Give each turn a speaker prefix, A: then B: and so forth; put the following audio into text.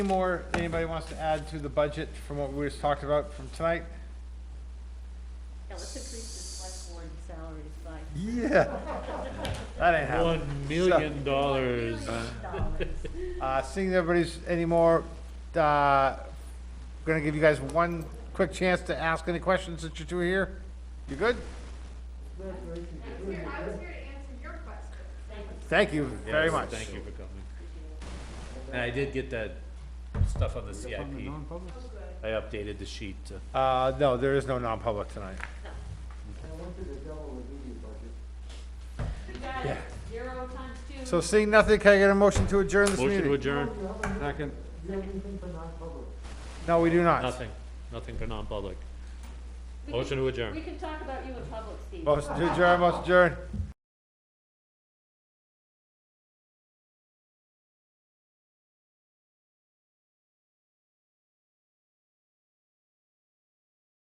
A: Any more anybody wants to add to the budget from what we just talked about from tonight?
B: Yeah, let's increase the select board salaries by
A: Yeah. That ain't happening.
C: One million dollars.
B: dollars.
A: Uh, seeing everybody's anymore, uh, gonna give you guys one quick chance to ask any questions since you two are here. You good?
D: I was here, I was here to answer your question.
A: Thank you very
C: Yes,
A: much.
C: Thank you for coming. And I did get that stuff on the CIP. I updated the sheet to.
A: Uh, no, there is no non-public tonight.
D: You got it, zero times two.
A: So seeing nothing, can I get a motion to adjourn this
C: Motion to
A: meeting?
C: adjourn,
A: Second. No, we do not.
C: nothing, nothing for non-public. Motion to adjourn.
D: We can talk about you in public, Steve.
A: Motion to adjourn, motion to adjourn.